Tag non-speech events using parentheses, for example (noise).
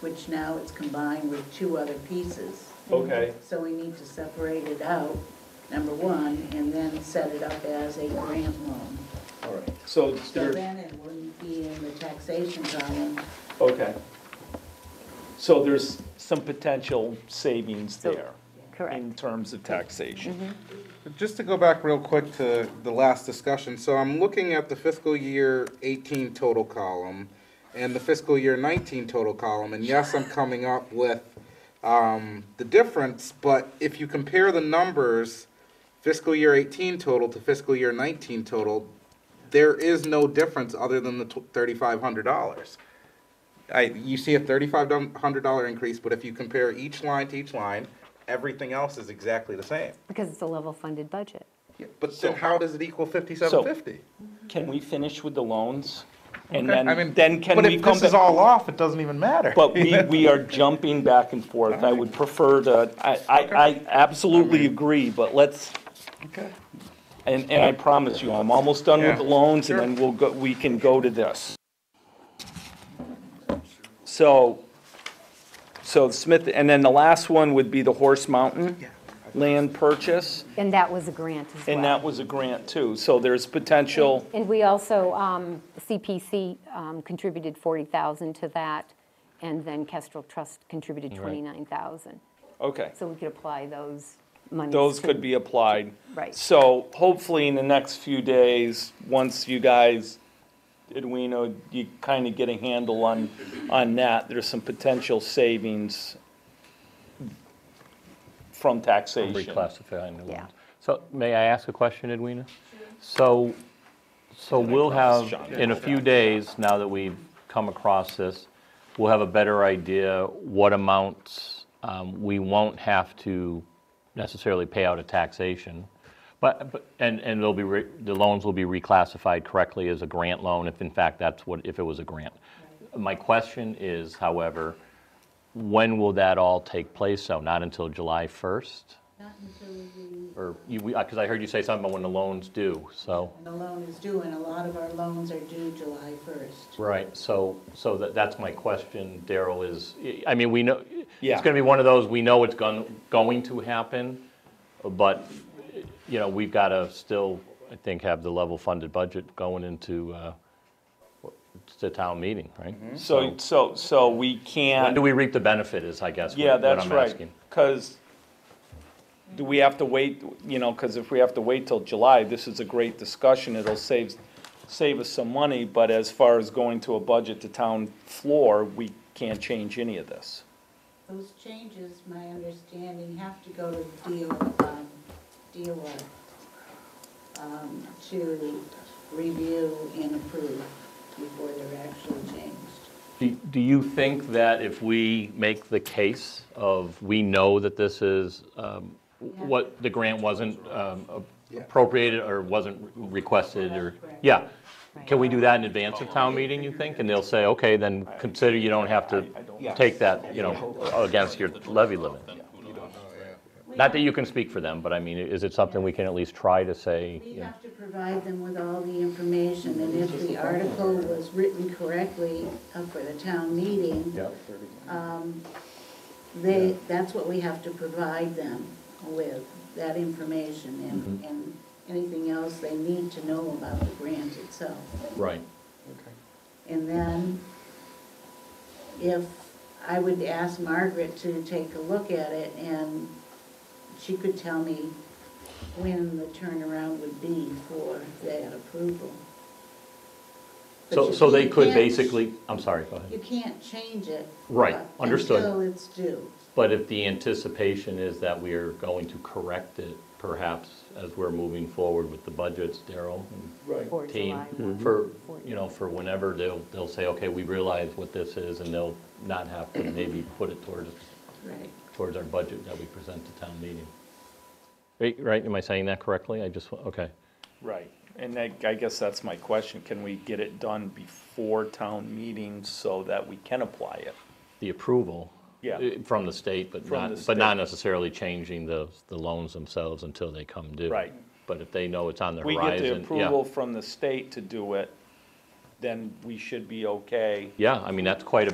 which now it's combined with two other pieces. Okay, So we need to separate it out, number one, and then set it up as a grant loan. all right. So So there, then it wouldn't be in the taxation column. okay. So there's some potential savings So- there Correct. Mm-hmm. in terms of taxation. Just to go back real quick to the last discussion, so I'm looking at the fiscal year eighteen total column and the fiscal year nineteen total column, and yes, I'm coming up with, um, the difference, but if you compare the numbers, fiscal year eighteen total to fiscal year nineteen total, there is no difference other than the thirty-five hundred dollars. I, you see a thirty-five hundred dollar increase, but if you compare each line to each line, everything else is exactly the same. Because it's a level funded budget. But then how does it equal fifty-seven fifty? Can we finish with the loans? And I then, mean, then can but we if come this is back? all off, it doesn't even matter. But (laughs) we, we are jumping back and forth. I would prefer to, I, I, I absolutely agree, but let's, Okay. and, and I promise you, I'm almost done with the Yeah. loans and Sure. then we'll go, we can go to this. So, so Smith, and then the last one would be the Horse Mountain land purchase. And that was a grant as well. And that was a grant too, so there's potential, And we also, um, CPC um, contributed 40,000 to that, and then Kestrel Trust contributed 29,000. okay. So we could apply those monies. Those to- could be applied. Right. So hopefully in the next few days, once you guys, Edwino, you kind of get a handle on, on that, there's some potential savings from taxation. Reclassifying the Yeah. ones. So may I ask a question, Edwina? So, so we'll have, in a few days, now that we've come across this, we'll have a better idea what amounts um, we won't have to necessarily pay out of taxation. But, but- and, and they'll be, re- the loans will be reclassified correctly as a grant loan, if in fact that's what, if it was a grant. My question is, however, when will that all take place? So not until July 1st? Not until the, Or, because I heard you say something about when the loans due, so. the loan is due, and a lot of our loans are due July 1st. Right. So, so that, that's my question, Daryl, is, I mean, we know, Yeah. it's going to be one of those, we know it's going, going to happen, but, you know, we've got to still, I think, have the level funded budget going into uh, the town meeting, right? So, so, so we can't. When do we reap the benefit is, I guess, what Yeah, what that's I'm right, asking. because do we have to wait, you know, because if we have to wait till July, this is a great discussion, it'll save, save us some money, but as far as going to a budget to town floor, we can't change any of this. Those changes, my understanding, have to go to the DO, um, DOR, um, to review and approve before they're actually changed. Do do you think that if we make the case of, we know that this is, um, what, the grant wasn't um, appropriated or wasn't requested or? Yeah. Can we do that in advance of town meeting, you think? And they'll say, okay, then consider you don't have to take that, you know, against your levy limit. Not that you can speak for them, but I mean, is it something we can at least try to say? We you know? have to provide them with all the information, and if the article was written correctly uh, for the town meeting, Yeah. they, that's what we have to provide them with, that information and, Mm-hmm. and anything else they need to know about the grant itself. Right. And then if, I would ask Margaret to take a look at it, and she could tell me when the turnaround would be for that approval. But So, you so they can't- could basically, I'm sorry, go ahead. You can't change it. Right, uh, understood. Until it's due. But if the anticipation is that we are going to correct it, perhaps, as we're moving forward with the budgets, Daryl Or and team, July one. for, you know, for whenever they'll, they'll say, okay, we realize what this is, and they'll not have to maybe put it towards, Right. towards our budget that we present to town meeting. Right- Right, am I saying that correctly? I just, okay. Right, and I, I guess that's my question, can we get it done before town meeting so that we can apply it? The approval. Yeah. eh, From the state, but From not, the but not state. necessarily changing the, the loans themselves until they come due. Right. But if they know it's on the We horizon, yeah. get the approval from the state to do it, then we should be okay. Yeah, I mean, that's quite a